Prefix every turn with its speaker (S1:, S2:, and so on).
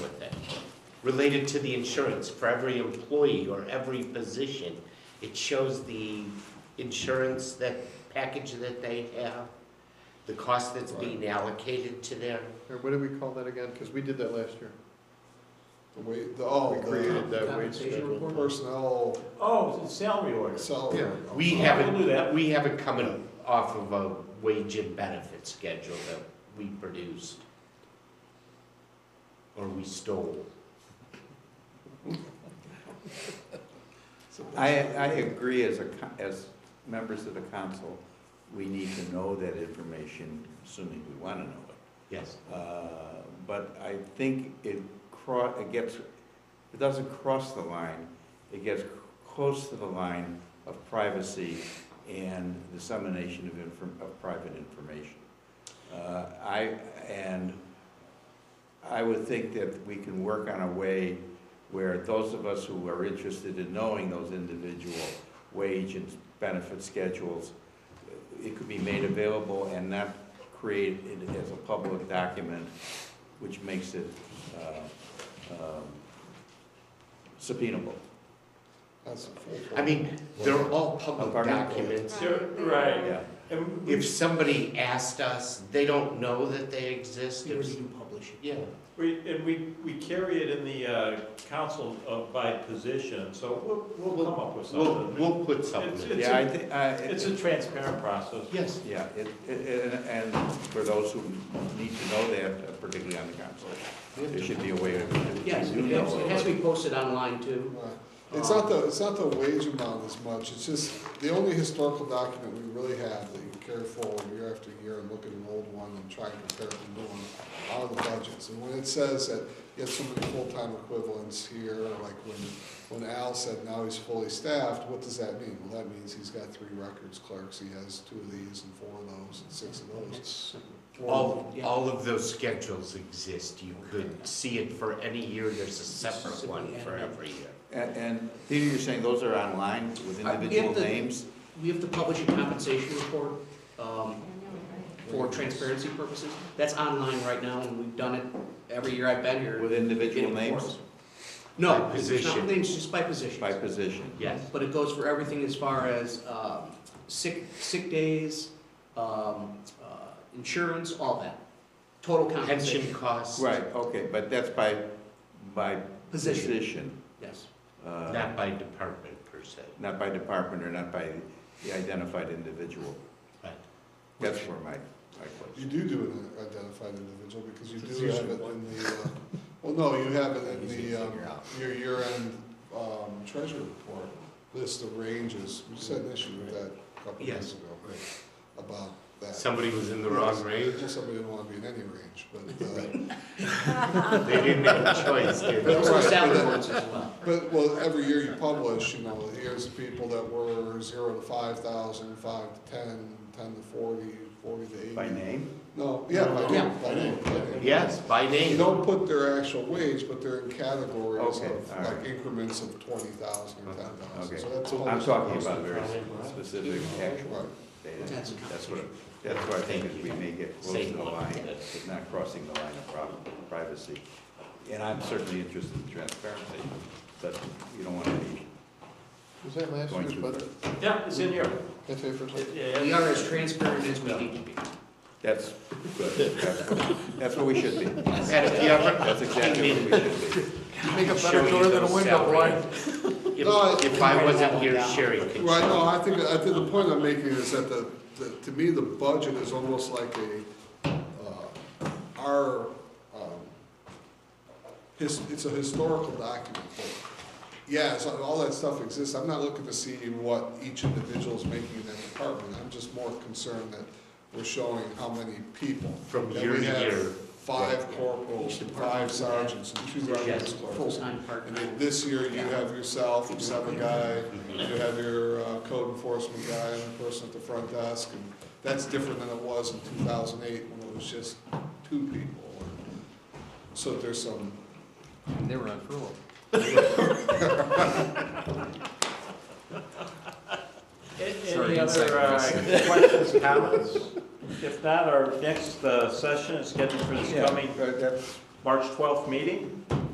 S1: related to the insurance for every employee or every position. It shows the insurance, that package that they have, the cost that's being allocated to their,
S2: Or what do we call that again? Because we did that last year.
S3: The way, the, oh,
S2: We created
S3: the
S2: that wage
S4: Compensation
S2: schedule.
S4: report?
S3: personnel
S4: Oh, it's salary orders.
S3: salary.
S2: Yeah.
S1: we
S3: Okay.
S1: haven't,
S4: We'll do that.
S1: we haven't come in off of a wage and benefit schedule that we produced. Or we stole.
S5: I, I agree as a, co- as members of the council, we need to know that information, assuming we want to know it.
S1: Yes.
S5: Uh, But I think it cro, it gets, it doesn't cross the line, it gets close to the line of privacy and dissemination of inform, of private information. Uh, I, and I would think that we can work on a way where those of us who are interested in knowing those individual wage and benefit schedules, it could be made available and not created as a public document, which makes it uh, um, subpoenable.
S3: That's a full
S1: I mean, they're all public
S5: Pardon?
S1: documents.
S4: Right.
S5: Yeah.
S4: And we-
S1: If somebody asked us, they don't know that they exist.
S4: We already
S1: do publish it. Yeah.
S4: We, and we, we carry it in the uh, council of- by position, so we'll, we'll come up with
S1: We'll,
S4: something.
S1: we'll put something.
S4: It's
S5: Yeah,
S4: a-
S5: I think, I.
S4: It's a transparent process.
S1: Yes.
S5: Yeah, it, it, and- and for those who need to know that, uh, particularly on the council, there should be a way to do
S6: Yes,
S5: do
S6: it
S5: know. uh,
S6: has- it has to be posted online too.
S3: Right. It's not the, it's not the wage amount as much, it's just, the only historical document we really have that you carry forward year after year and look at an old one and try and compare it to new one are the budgets. And when it says that you have so many full-time equivalents here, like when, when Al said now he's fully staffed, what does that mean? Well, that means he's got three records clerks, he has two of these and four of those and six of those.
S6: It's,
S1: All,
S6: Yeah.
S1: all of those schedules exist. You could see it for any year. There's a separate one for every year.
S5: And, and Peter, you're saying those are online with
S6: Uh, we
S5: individual
S6: have to-
S5: names?
S6: We have to publish a compensation report um, for transparency purposes. That's online right now, and we've done it every year I've been here.
S5: With individual
S6: Getting
S5: names
S6: reports. No,
S1: By
S6: it's not
S1: position.
S6: with names, just by positions.
S5: by position?
S1: Yes.
S6: But it goes for everything as far as um, sick, sick days, um, uh, insurance, all that. Total
S1: Pension
S6: compensation,
S1: costs.
S5: Right, okay, but that's by, by
S6: position,
S5: position,
S6: yes.
S5: uh,
S1: Not by department per se.
S5: not by department or not by the identified individual.
S1: Right.
S5: That's where my, my
S3: You
S5: question.
S3: do do an identified individual because you
S2: It's
S3: do have it
S2: usually
S3: in the, uh, well, no, you have it in
S5: Easy to
S3: the, um,
S5: figure out.
S3: your year-end, um, treasury report, list of ranges. We just had an issue with that a couple of
S1: Yes.
S3: days ago, about that.
S1: Somebody was in the wrong range.
S3: Well, Somebody didn't want to be in any range, but, uh,
S1: They didn't have a choice, did
S6: Those
S1: they?
S6: are
S3: Right.
S6: salary ones as well.
S3: but, well, every year you publish, you know, here's the people that were zero to five thousand, five to ten, ten to forty, forty to eighty.
S5: By name?
S3: No, yeah, by name,
S6: Yeah.
S3: by name, by name.
S1: Yes, by
S3: You
S1: name.
S3: don't put their actual wage, but they're in categories
S5: Okay,
S3: of,
S5: all right.
S3: like increments of twenty thousand or ten thousand,
S5: Okay.
S3: so that's. all-
S5: I'm talking about very specific actual data.
S6: That's a
S5: That's what, that's what I think is we may get close to
S1: Same
S5: the
S1: one.
S5: line, but not crossing the line of pri- privacy. And I'm certainly interested in transparency, but you don't want to be
S2: Was that last
S5: Going
S2: year's
S5: through
S2: budget?
S4: Yeah, it's in here.
S2: Can I say for a second?
S4: Yeah,
S6: We are as transparent as we need to be.
S5: That's good. That's what- That's what we should be.
S1: And if you ever
S5: That's exactly what we should be.
S2: Make a
S1: show
S2: better
S1: you
S2: door than
S1: those
S2: a window,
S1: salary.
S2: boy.
S3: No,
S1: If, if I wasn't here, Sherry could.
S3: Right, no, I think, I think the point I'm making is that the, the- to me, the budget is almost like a, uh, our, um, his, it's a historical document. but, Yeah, so all that stuff exists, I'm not looking to see what each individual is making in that department, I'm just more concerned that we're showing how many people.
S1: From
S3: And
S1: year
S3: we
S1: to
S3: have
S1: year.
S3: Five corporals,
S6: Each department
S3: five
S6: does that.
S3: sergeants, and two
S1: Yes.
S3: records clerks.
S6: Full-time,
S3: And
S6: part-time.
S3: then this year, you have yourself, you have a guy, you have your uh, code enforcement guy and the person at the front desk, and that's different than it was in two thousand eight when it was just two people. So there's some,
S2: They were on furlough.
S4: A-
S2: Sorry,
S4: Any
S2: inside
S4: other uh, questions, comments? If not, our next uh, session is scheduled for this
S5: Yeah,
S4: coming
S5: but that's-
S4: March 12th meeting.